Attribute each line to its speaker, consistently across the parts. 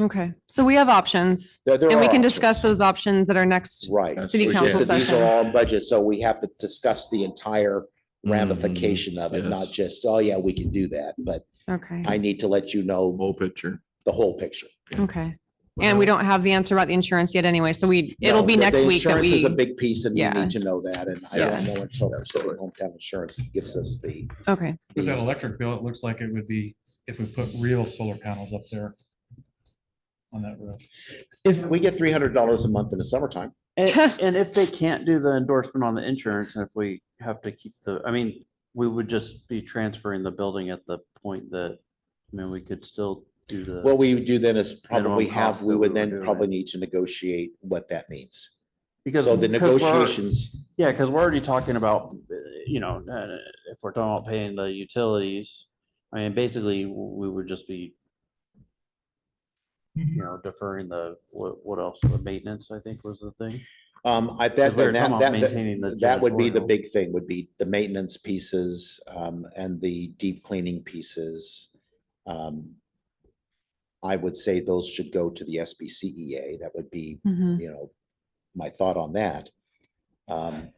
Speaker 1: Okay, so we have options
Speaker 2: There- there
Speaker 1: and we
Speaker 2: are
Speaker 1: can
Speaker 2: options.
Speaker 1: discuss those options at our next,
Speaker 2: Right.
Speaker 3: That's
Speaker 1: City
Speaker 3: what-
Speaker 1: council
Speaker 2: So
Speaker 3: yeah.
Speaker 2: These
Speaker 1: session.
Speaker 2: are all budgets, so we have to discuss the entire
Speaker 4: Mm,
Speaker 2: ramification of it,
Speaker 3: yes.
Speaker 2: not just, oh yeah, we can do that, but
Speaker 1: okay,
Speaker 2: I need to let you
Speaker 3: Mm,
Speaker 2: know
Speaker 3: Whole picture.
Speaker 2: the whole picture.
Speaker 1: okay. And we don't have the answer about the insurance yet anyway, so we, it'll
Speaker 2: No,
Speaker 1: be
Speaker 2: the- the
Speaker 1: next week that
Speaker 2: Insurance
Speaker 1: we,
Speaker 2: is a big piece and we
Speaker 1: Yeah.
Speaker 2: need to know that, and I don't know until our city hometown insurance gives us the.
Speaker 1: okay,
Speaker 5: With that electric bill, it looks like it would be if we put real solar panels up there on that roof.
Speaker 2: If we get three hundred dollars a month in the summertime,
Speaker 4: And, and if they can't do the endorsement on the insurance, and if we have to keep the, I mean, we would just be transferring the building at the point that, I mean, we could still do the.
Speaker 2: what we would do then is probably
Speaker 4: Minimum cost
Speaker 2: have, we
Speaker 4: that
Speaker 2: would
Speaker 4: we were
Speaker 2: then
Speaker 4: doing.
Speaker 2: probably need to negotiate what that means.
Speaker 4: because-
Speaker 2: So the
Speaker 4: because we're-
Speaker 2: negotiations,
Speaker 4: Yeah, because we're already talking about, uh, you know, uh, if we're talking about paying the utilities, I mean, basically, w- we would just be, you know, deferring the, what, what else, the maintenance, I think was the thing.
Speaker 2: um, I bet
Speaker 4: Because we were
Speaker 2: that, that,
Speaker 4: talking about
Speaker 2: that-
Speaker 4: maintaining the
Speaker 2: That would be the
Speaker 4: janitorial.
Speaker 2: big thing, would be the maintenance pieces, um, and the deep cleaning pieces. Um, I would say those should go to the SBCEA. E That would be,
Speaker 4: Hmm.
Speaker 1: mhm,
Speaker 2: you know, my thought on that. Um,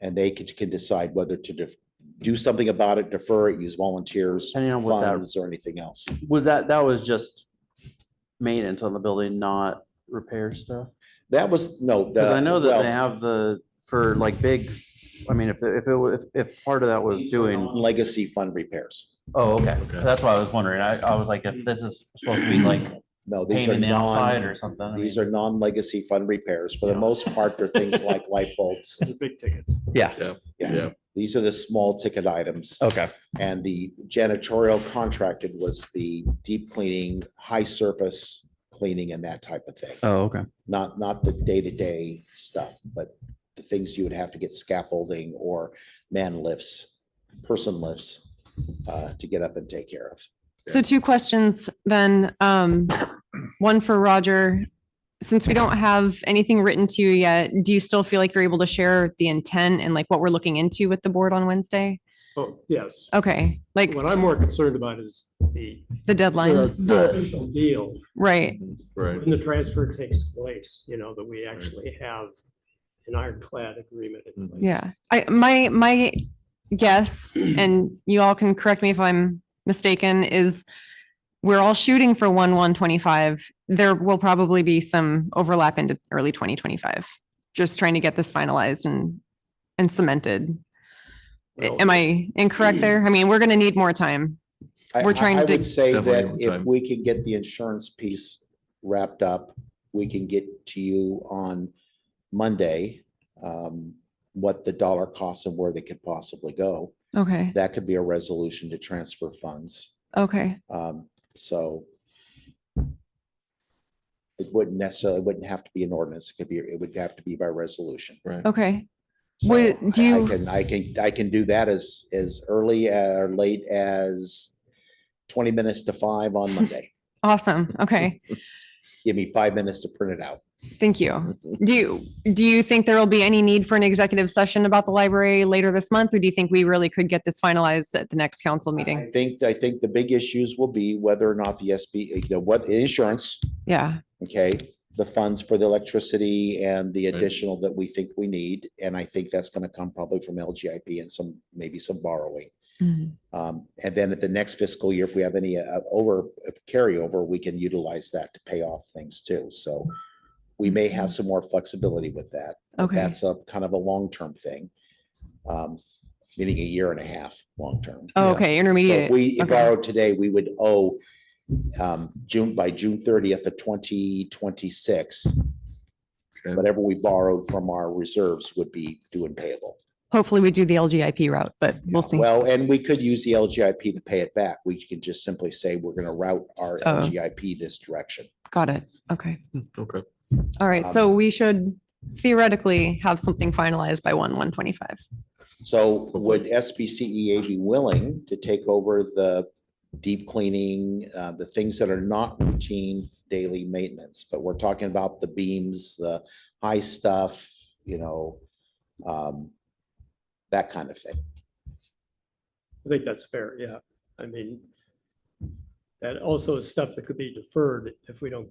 Speaker 2: and they could, can decide whether to def- do something about it, defer it, use volunteers,
Speaker 4: Depending on what that-
Speaker 2: funds or anything else.
Speaker 4: Was that, that was just maintenance on the building, not repair stuff?
Speaker 2: That was, no.
Speaker 4: Because
Speaker 2: the-
Speaker 4: I know that they
Speaker 2: well,
Speaker 4: have the, for like big, I mean, if, if it, wa- if, if part of that was doing,
Speaker 2: Legacy fund repairs.
Speaker 4: oh, okay,
Speaker 3: Okay.
Speaker 4: that's what I was wondering. I, I was like, if this is supposed to be like
Speaker 2: No, these are
Speaker 4: painting the outside
Speaker 2: non,
Speaker 4: or something. I
Speaker 2: These
Speaker 4: mean-
Speaker 2: are non-legacy fund repairs. For the
Speaker 4: Yeah.
Speaker 2: most part, they're things like light bulbs.
Speaker 4: Yeah,
Speaker 2: Yeah, these are the small ticket items.
Speaker 4: okay.
Speaker 2: And the janitorial contracted was the deep cleaning, high surface cleaning and that type of thing.
Speaker 4: Oh, okay.
Speaker 2: Not, not the day-to-day stuff, but the things you would have to get scaffolding or man lifts, person lifts uh, to get up and take care of.
Speaker 1: so two questions then, um, one for Roger. Since we don't have anything written to you yet, do you still feel like you're able to share the intent and like what we're looking into with the board on Wednesday?
Speaker 6: Oh, yes.
Speaker 1: Okay, like
Speaker 6: What I'm more concerned about is the
Speaker 1: the
Speaker 6: the
Speaker 1: deadline,
Speaker 6: official deal,
Speaker 1: right?
Speaker 3: Right.
Speaker 6: when the transfer takes place, you know, that we actually have an ironclad agreement. in place.
Speaker 1: Yeah, I, my, my guess, and you all can correct me if I'm mistaken, is we're all shooting for one, one twenty-five. There will probably be some overlap into early twenty twenty-five. Just trying to get this finalized and, and cemented.
Speaker 6: Well,
Speaker 1: Am I incorrect there? I mean, we're gonna need more time.
Speaker 2: I-
Speaker 1: We're
Speaker 2: I-
Speaker 1: trying
Speaker 2: I
Speaker 1: to-
Speaker 2: would Say
Speaker 3: Definitely
Speaker 2: that
Speaker 3: over
Speaker 2: if
Speaker 3: time.
Speaker 2: we can get the insurance piece wrapped up, we can get to you on Monday. um, What the dollar costs and where they could possibly go.
Speaker 1: Okay,
Speaker 2: That could be a resolution to transfer funds.
Speaker 1: okay,
Speaker 2: Um, So it wouldn't necessarily, it wouldn't have to be an ordinance. It could be, it would have to be by resolution.
Speaker 1: okay.
Speaker 2: So
Speaker 1: Would- do
Speaker 2: I- I
Speaker 1: you-
Speaker 2: can, I can, I can do that as, as early uh, or late as twenty minutes to five on Monday.
Speaker 1: Awesome. Okay.
Speaker 2: Give me five minutes to print it out.
Speaker 1: Thank you. Do you, do you think there will be any need for an executive session about the library later this month? Or do you think we really could get this finalized at the next council meeting?
Speaker 2: I think, I think the big issues will be whether or not the SB, you know, what insurance,
Speaker 1: Yeah,
Speaker 2: okay? The funds for the electricity and the
Speaker 3: Right.
Speaker 2: additional that we think we need. And I think that's gonna come probably from LGIP and some, maybe some borrowing.
Speaker 1: Mhm.
Speaker 2: Um, and then at the next fiscal year, if we have any uh, over uh, carryover, we can utilize that to pay off things too. So we may have some more flexibility with that. but
Speaker 1: okay,
Speaker 2: That's a kind of a long-term thing. Um, meaning a year and a half, long-term.
Speaker 1: Oh, okay,
Speaker 2: So if
Speaker 1: intermediate,
Speaker 2: we
Speaker 1: okay.
Speaker 2: borrowed today, we would owe um, June, by June thirtieth of twenty twenty-six.
Speaker 3: Okay.
Speaker 2: Whatever we borrowed from our reserves would be due and payable.
Speaker 1: hopefully we do the LGIP route, but we'll see.
Speaker 2: Well, and we could use the LGIP to pay it back. We could just simply say we're gonna route our
Speaker 1: Oh.
Speaker 2: LGIP this direction.
Speaker 1: Got it, okay.
Speaker 3: Okay.
Speaker 1: All right,
Speaker 2: um,
Speaker 1: so we should theoretically have something finalized by one, one twenty-five.
Speaker 2: So would SBCEA E be willing to take over the deep cleaning, uh, the things that are not routine daily maintenance? But we're talking about the beams, the high stuff, you know, um, that kind of thing.
Speaker 6: I think that's fair, yeah. I mean, that also is stuff that could be deferred if we don't